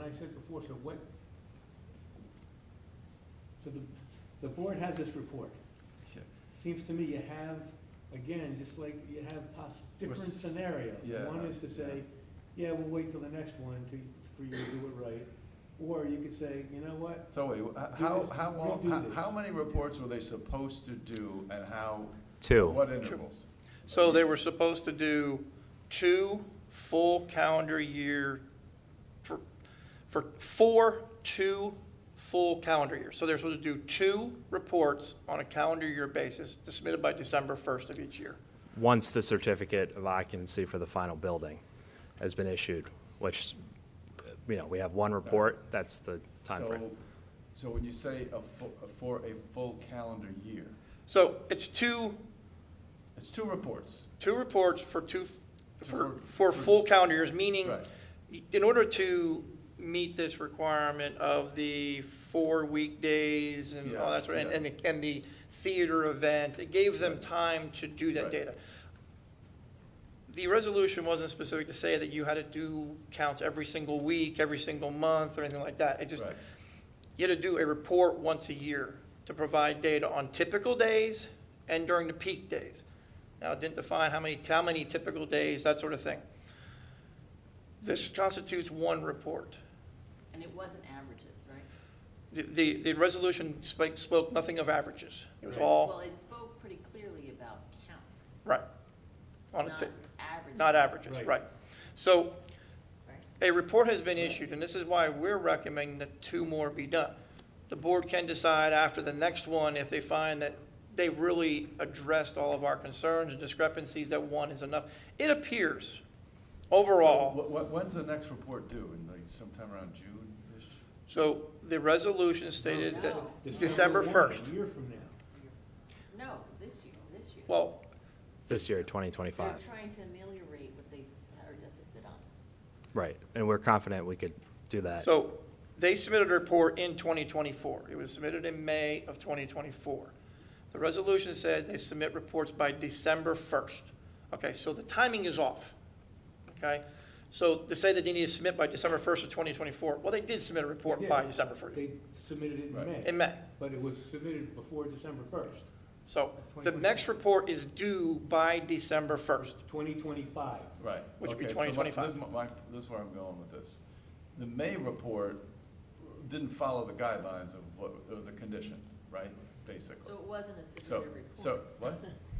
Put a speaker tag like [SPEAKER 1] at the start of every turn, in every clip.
[SPEAKER 1] I said before, so what? So the, the board has this report.
[SPEAKER 2] Yeah.
[SPEAKER 1] Seems to me you have, again, just like you have poss, different
[SPEAKER 2] s-
[SPEAKER 1] scenarios.
[SPEAKER 2] yeah,
[SPEAKER 1] One is to say, yeah, we'll wait till the next one to, for you to do it right. Or you could say, you know what,
[SPEAKER 2] So wait, wh- how,
[SPEAKER 1] this-
[SPEAKER 2] how, long-
[SPEAKER 1] redo
[SPEAKER 2] how-
[SPEAKER 1] this.
[SPEAKER 2] how many reports were they supposed to do and how,
[SPEAKER 3] Two.
[SPEAKER 2] what intervals?
[SPEAKER 4] So they were supposed to do two full calendar year, for, for four, two full calendar years. So they're supposed to do two reports on a calendar year basis, to submitted by December 1st of each year.
[SPEAKER 3] Once the certificate of occupancy for the final building has been issued, which, uh, you know, we have one report, that's the time frame.
[SPEAKER 2] So- So when you say a fu- for a full calendar year,
[SPEAKER 4] So it's two,
[SPEAKER 2] it's two reports.
[SPEAKER 4] two reports for two, for,
[SPEAKER 2] For-
[SPEAKER 4] for full calendar years, meaning
[SPEAKER 2] Right.
[SPEAKER 4] in order to meet this requirement of the four weekdays and all that sort of, and, and the, and the theater events, it gave them time to do that
[SPEAKER 2] Right.
[SPEAKER 4] data. The resolution wasn't specific to say that you had to do counts every single week, every single month, or anything like that. It just,
[SPEAKER 2] Right.
[SPEAKER 4] you had to do a report once a year to provide data on typical days and during the peak days. Now, it didn't define how many, how many typical days, that sort of thing. This constitutes one report.
[SPEAKER 5] And it wasn't averages, right?
[SPEAKER 4] The, the, the resolution spoke, spoke nothing of averages. It was
[SPEAKER 1] Right.
[SPEAKER 5] Well,
[SPEAKER 4] all,
[SPEAKER 5] it spoke pretty clearly about counts,
[SPEAKER 4] right, on a,
[SPEAKER 5] not
[SPEAKER 4] ti-
[SPEAKER 5] averages.
[SPEAKER 4] not averages,
[SPEAKER 1] Right.
[SPEAKER 4] right. So
[SPEAKER 5] right?
[SPEAKER 4] a report has been issued, and this is why we're recommending that two more be done. The board can decide after the next one if they find that they've really addressed all of our concerns and discrepancies, that one is enough. It appears, overall,
[SPEAKER 2] So wh- wh- when's the next report due? In like sometime around June-ish?
[SPEAKER 4] so the resolution stated that,
[SPEAKER 5] No.
[SPEAKER 4] December
[SPEAKER 1] one,
[SPEAKER 4] 1st.
[SPEAKER 1] A year from now.
[SPEAKER 5] No, this year, this year.
[SPEAKER 4] well,
[SPEAKER 3] This year,
[SPEAKER 5] They're
[SPEAKER 3] 2025,
[SPEAKER 5] trying to ameliorate what they are deficit on.
[SPEAKER 3] right. And we're confident we could do that.
[SPEAKER 4] So they submitted a report in 2024. It was submitted in May of 2024. The resolution said they submit reports by December 1st. Okay, so the timing is off, okay? So to say that they need to submit by December 1st of 2024, well, they did submit a report by
[SPEAKER 1] Yeah.
[SPEAKER 4] December 1st,
[SPEAKER 1] They submitted it in
[SPEAKER 2] Right.
[SPEAKER 1] May.
[SPEAKER 4] in May.
[SPEAKER 1] But it was submitted before December first,
[SPEAKER 4] So the next report is due by December 1st.
[SPEAKER 1] twenty twenty-five.
[SPEAKER 2] Right.
[SPEAKER 4] Which would be
[SPEAKER 2] Okay, so my-
[SPEAKER 4] 2025.
[SPEAKER 2] This is my- this is where I'm going with this. The May report didn't follow the guidelines of what, of the condition, right,
[SPEAKER 5] So
[SPEAKER 2] basically?
[SPEAKER 5] it wasn't a
[SPEAKER 2] So,
[SPEAKER 5] submitted report.
[SPEAKER 2] so, what?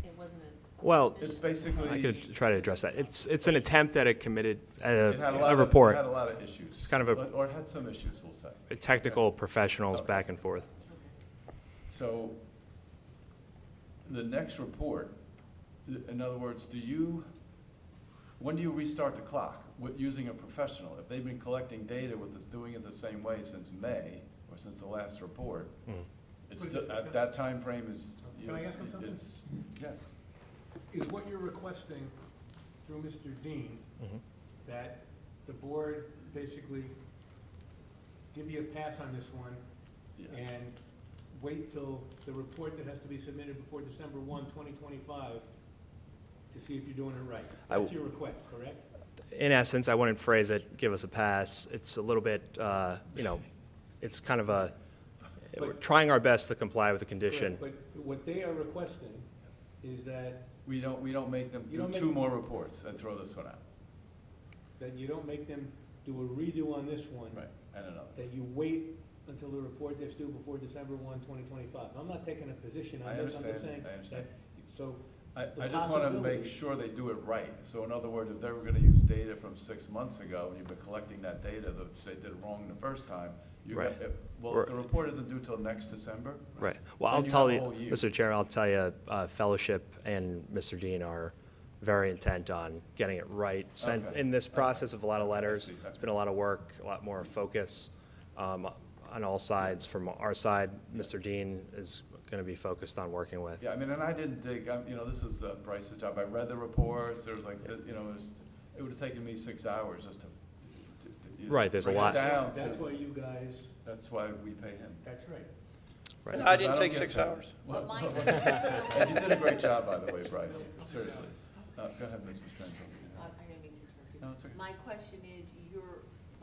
[SPEAKER 5] It wasn't a.
[SPEAKER 3] Well,
[SPEAKER 2] It's basically.
[SPEAKER 3] I could try to address that. It's, it's an attempt at a committed, at
[SPEAKER 2] It had a lot
[SPEAKER 3] a, a
[SPEAKER 2] of-
[SPEAKER 3] report,
[SPEAKER 2] It had a lot of issues.
[SPEAKER 3] It's kind of a-
[SPEAKER 2] Or- Or it had some issues, we'll say.
[SPEAKER 3] technical professionals
[SPEAKER 2] Okay.
[SPEAKER 3] back and forth.
[SPEAKER 2] So the next report, in other words, do you, when do you restart the clock? With using a professional? If they've been collecting data with this, doing it the same way since May or since the last report,
[SPEAKER 3] Mm.
[SPEAKER 2] it's, still- at that timeframe is. you-
[SPEAKER 1] Can I ask him something?
[SPEAKER 2] it's- Yes.
[SPEAKER 1] Is what you're requesting through Mr. Dean,
[SPEAKER 3] Mhm.
[SPEAKER 1] that the board basically give you a pass on this one
[SPEAKER 2] Yeah.
[SPEAKER 1] and wait till the report that has to be submitted before December one, twenty twenty-five, to see if you're doing it right?
[SPEAKER 3] I w-
[SPEAKER 1] That's your request, correct?
[SPEAKER 3] in essence, I wouldn't phrase it, give us a pass. It's a little bit, uh, you know, it's kind of a, we're trying our best to comply with the condition.
[SPEAKER 1] But what they are requesting is that,
[SPEAKER 2] We don't, we don't make them
[SPEAKER 1] You
[SPEAKER 2] do
[SPEAKER 1] don't
[SPEAKER 2] two
[SPEAKER 1] make-
[SPEAKER 2] more reports and throw this one out.
[SPEAKER 1] that you don't make them do a redo on this one.
[SPEAKER 2] Right, and another.
[SPEAKER 1] That you wait until the report that's due before December one, twenty twenty-five. I'm not taking a position
[SPEAKER 2] I
[SPEAKER 1] on this, I'm
[SPEAKER 2] understand,
[SPEAKER 1] just saying.
[SPEAKER 2] I understand.
[SPEAKER 1] that- So
[SPEAKER 2] I,
[SPEAKER 1] the
[SPEAKER 2] I just wanna make
[SPEAKER 1] possibility-
[SPEAKER 2] sure they do it right. So in other words, if they were gonna use data from six months ago, and you've been collecting that data, that they did wrong the first time, you got,
[SPEAKER 3] Right.
[SPEAKER 2] if- well, if the
[SPEAKER 3] Right.
[SPEAKER 2] report isn't due till next December.
[SPEAKER 3] Right. Well,
[SPEAKER 2] then
[SPEAKER 3] I'll
[SPEAKER 2] you
[SPEAKER 3] tell
[SPEAKER 2] have a
[SPEAKER 3] you,
[SPEAKER 2] whole year.
[SPEAKER 3] Mr. Chair, I'll tell you, uh, Fellowship and Mr. Dean are very intent on getting it right. Since,
[SPEAKER 2] Okay.
[SPEAKER 3] in this
[SPEAKER 2] Okay.
[SPEAKER 3] process of a lot of
[SPEAKER 2] Okay, I
[SPEAKER 3] letters,
[SPEAKER 2] see.
[SPEAKER 3] it's been a lot of work, a lot more focus um, on all sides. From our side, Mr. Dean is going to be focused on working with.
[SPEAKER 2] Yeah, I mean, and I didn't dig, I'm, you know, this is uh, Bryce's job. I read the reports, there was like, the- you know, it was, it would've taken me six hours just to. to- to- to
[SPEAKER 3] Right, there's a
[SPEAKER 2] bring it
[SPEAKER 3] lot.
[SPEAKER 2] down to-
[SPEAKER 1] that's why you guys,
[SPEAKER 2] That's why we pay him.
[SPEAKER 1] that's right.
[SPEAKER 3] Right.
[SPEAKER 4] And I
[SPEAKER 2] Because
[SPEAKER 4] didn't take
[SPEAKER 2] get
[SPEAKER 4] six
[SPEAKER 2] paid.
[SPEAKER 4] hours.
[SPEAKER 2] Well,
[SPEAKER 5] But mine.
[SPEAKER 2] And you did a great job, by the way, Bryce, seriously. Uh, go ahead, Ms. Mastrangelo.
[SPEAKER 5] I I didn't mean to interrupt you.
[SPEAKER 2] No, it's okay.
[SPEAKER 5] My question is,